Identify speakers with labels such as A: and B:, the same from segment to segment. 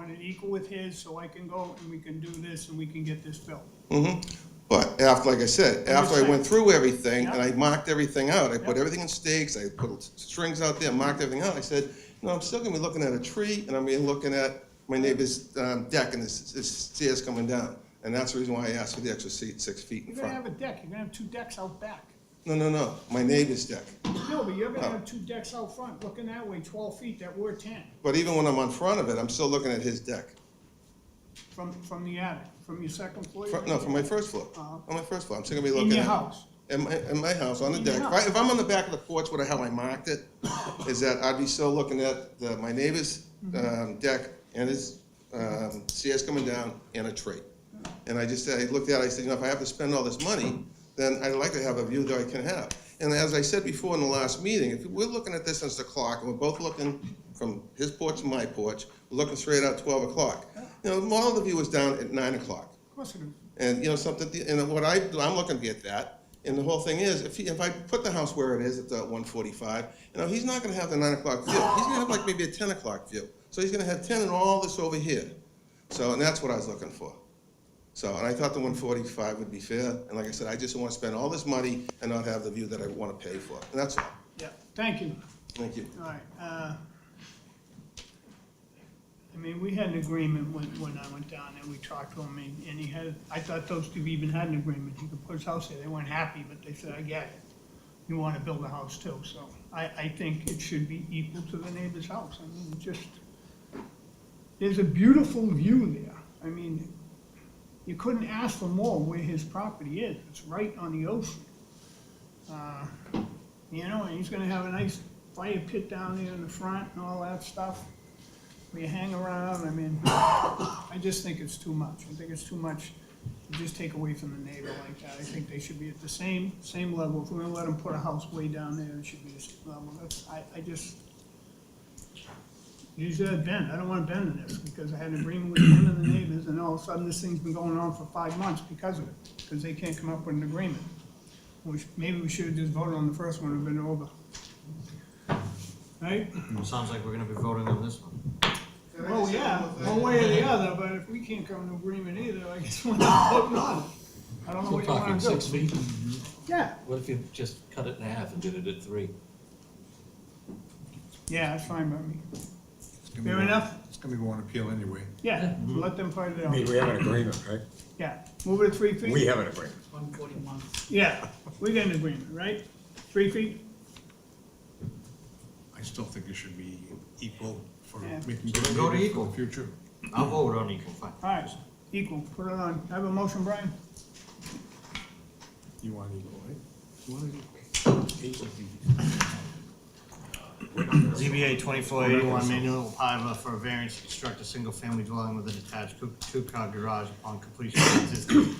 A: it equal with his, so I can go and we can do this and we can get this built.
B: Mm-hmm. But after, like I said, after I went through everything and I marked everything out, I put
A: Yeah.
B: everything in stakes, I put s- strings out there, marked everything out, I said, no, I'm still gonna be looking at a tree and I'm gonna be looking at my neighbor's um, deck and the s- s- stairs coming down. And that's the reason why I asked for the extra seat, six feet in
A: You're gonna have
B: front.
A: a deck, you're gonna have two decks out back.
B: No, no, no, my neighbor's deck.
A: No, but you're gonna
B: Oh.
A: have two decks out front, looking that way, twelve feet that were ten,
B: But even when I'm on front of it, I'm still looking at his deck.
A: from, from the attic, from your second floor.
B: Fr- No, from my first floor, on my first floor, I'm still gonna be
A: Oh. In
B: looking at.
A: your house.
B: In my, in my house, on the
A: In your
B: deck. If I-
A: house.
B: If I'm on the back of the porch, where the hell I marked it, is that I'd be still looking at the, my neighbor's, um, deck and his, um, stairs coming down and a tree. And I just, I looked at it, I said, you know, if I have to spend all this money, then I'd like to have a view that I can have. And as I said before in the last meeting, if we're looking at this since the clock, and we're both looking from his porch to my porch, we're looking straight out twelve o'clock. You know, all of the view was down at nine o'clock.
A: Of course it is.
B: And, you know, something, and what I, do, I'm looking to get that, and the whole thing is, if, he- if I put the house where it is at the one forty-five, you know, he's not gonna have the nine o'clock view, he's gonna have like maybe a ten o'clock view. So he's gonna have ten and all this over here, so, and that's what I was looking for. So, and I thought the one forty-five would be fair, and like I said, I just don't wanna spend all this money and not have the view that I wanna pay for, and that's all,
A: Yeah, thank you.
B: thank you.
A: All right, uh, I mean, we had an agreement when, when I went down there, we talked to him, and- and he had, I thought those two even had an agreement, he could put his house there, they weren't happy, but they said, I get it. You wanna build a house too, so I, I think it should be equal to the neighbor's house, I mean, just, there's a beautiful view there, I mean, you couldn't ask for more where his property is, it's right on the ocean. You know, and he's gonna have a nice fire pit down there in the front and all that stuff. We hang around, I mean, I just think it's too much. I think it's too much to just take away from the neighbor like that. I think they should be at the same, same level. If we're gonna let them put a house way down there, it should be the same level. That's, I, I just, usually I bend, I don't wanna bend in this, because I had an agreement with him and the neighbors, and all of a sudden, this thing's been going on for five months because of it, because they can't come up with an agreement. Which, maybe we should've just voted on the first one, it'd been over. Right?
C: Well, Sounds like we're gonna be voting on this one.
A: Well, yeah, one way or the other, but if we can't come to agreement either, I guess we're not voting on it. I don't know what
D: We're
A: Oh, you
D: talking
A: wanna do.
D: six feet.
A: Yeah,
D: What if you just cut it in half and did it at three?
A: yeah, that's fine by me.
E: gonna be
A: Fair
E: one-
A: enough.
E: It's gonna be one appeal anyway.
A: Yeah,
D: Mm-hmm.
A: let them fight it
F: I mean,
A: out.
F: we have an agreement, right?
A: Yeah, move it to three feet.
F: We have an agreement.
G: One forty-one.
A: Yeah, we got an agreement, right? Three feet?
E: I still think it should be equal for
A: Yeah.
E: making
C: So
E: good
C: go to
E: neighbors for
C: equal.
E: the future.
C: I'll vote on equal, fine.
A: All right, equal, put it on. Have a motion, Brian?
E: You want equal, right? You want equal.
C: ZBA twenty-four eighty-one, Manuel Piva for a variance to construct a single-family dwelling with an attached coo- two-car garage upon completion of existing.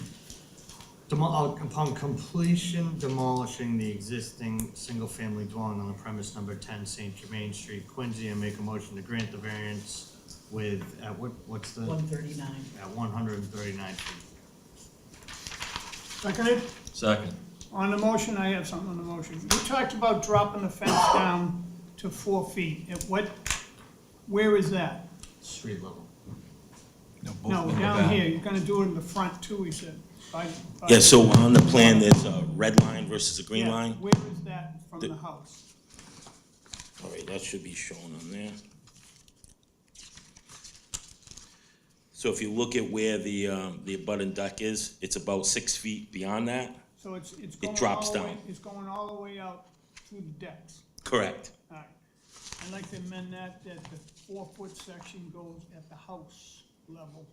C: Demo- uh, upon completion demolishing the existing single-family dwelling on the premise number ten Saint Germain Street, Quincy, and make a motion to grant the variance with, at what, what's the?
G: One thirty-nine.
C: At one hundred and thirty-nine feet.
A: Seconded?
D: Second.
A: On the motion, I have something on the motion. We talked about dropping the fence down to four feet. At what, where is that?
C: Street level.
A: No, down here, you're gonna do it in the front too, he said. By- by-
H: Yeah, so on the plan, there's a red line versus a green
A: Yeah,
H: line.
A: Where is that from the house?
H: All right, that should be shown on there. So if you look at where the, um, the abutting deck is, it's about six feet beyond that?
A: So it's, it's going
H: drops
A: all the way,
H: down.
A: it's going all the way out through the decks.
H: Correct.
A: All right. I'd like to amend that, that the four-foot section goes at the house level.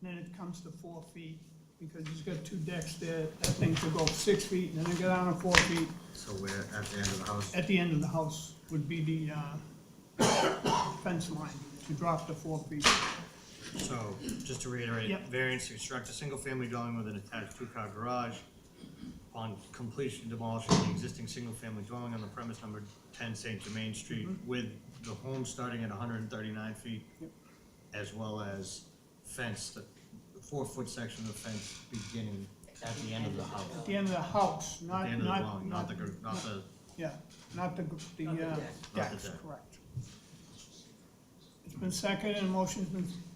A: and Then it comes to four feet, because he's got two decks there, that thing could go six feet, and then it go down to four feet.
C: So we're at the end of the house.
A: At the end of the house would be the, uh, fence line, to drop to four feet.
C: So, just to reiterate,
A: Yep.
C: variance to construct a single-family dwelling with an attached two-car garage. Upon completion demolishing the existing single-family dwelling on the premise number ten Saint Germain Street
A: Mm-hmm.
C: with the home starting at hundred and thirty-nine feet. As well as fence, the four-foot section of fence beginning at the end of the house.
A: At the end of the house,
C: At the
A: not,
C: end of the
A: not,
C: dwelling, not
A: not,
C: the, gr- not the,
A: yeah, not the, gr- the,
G: Not the
A: uh,
G: deck.
C: Not the
A: decks,
C: deck.
A: correct. It's been seconded, and motion's been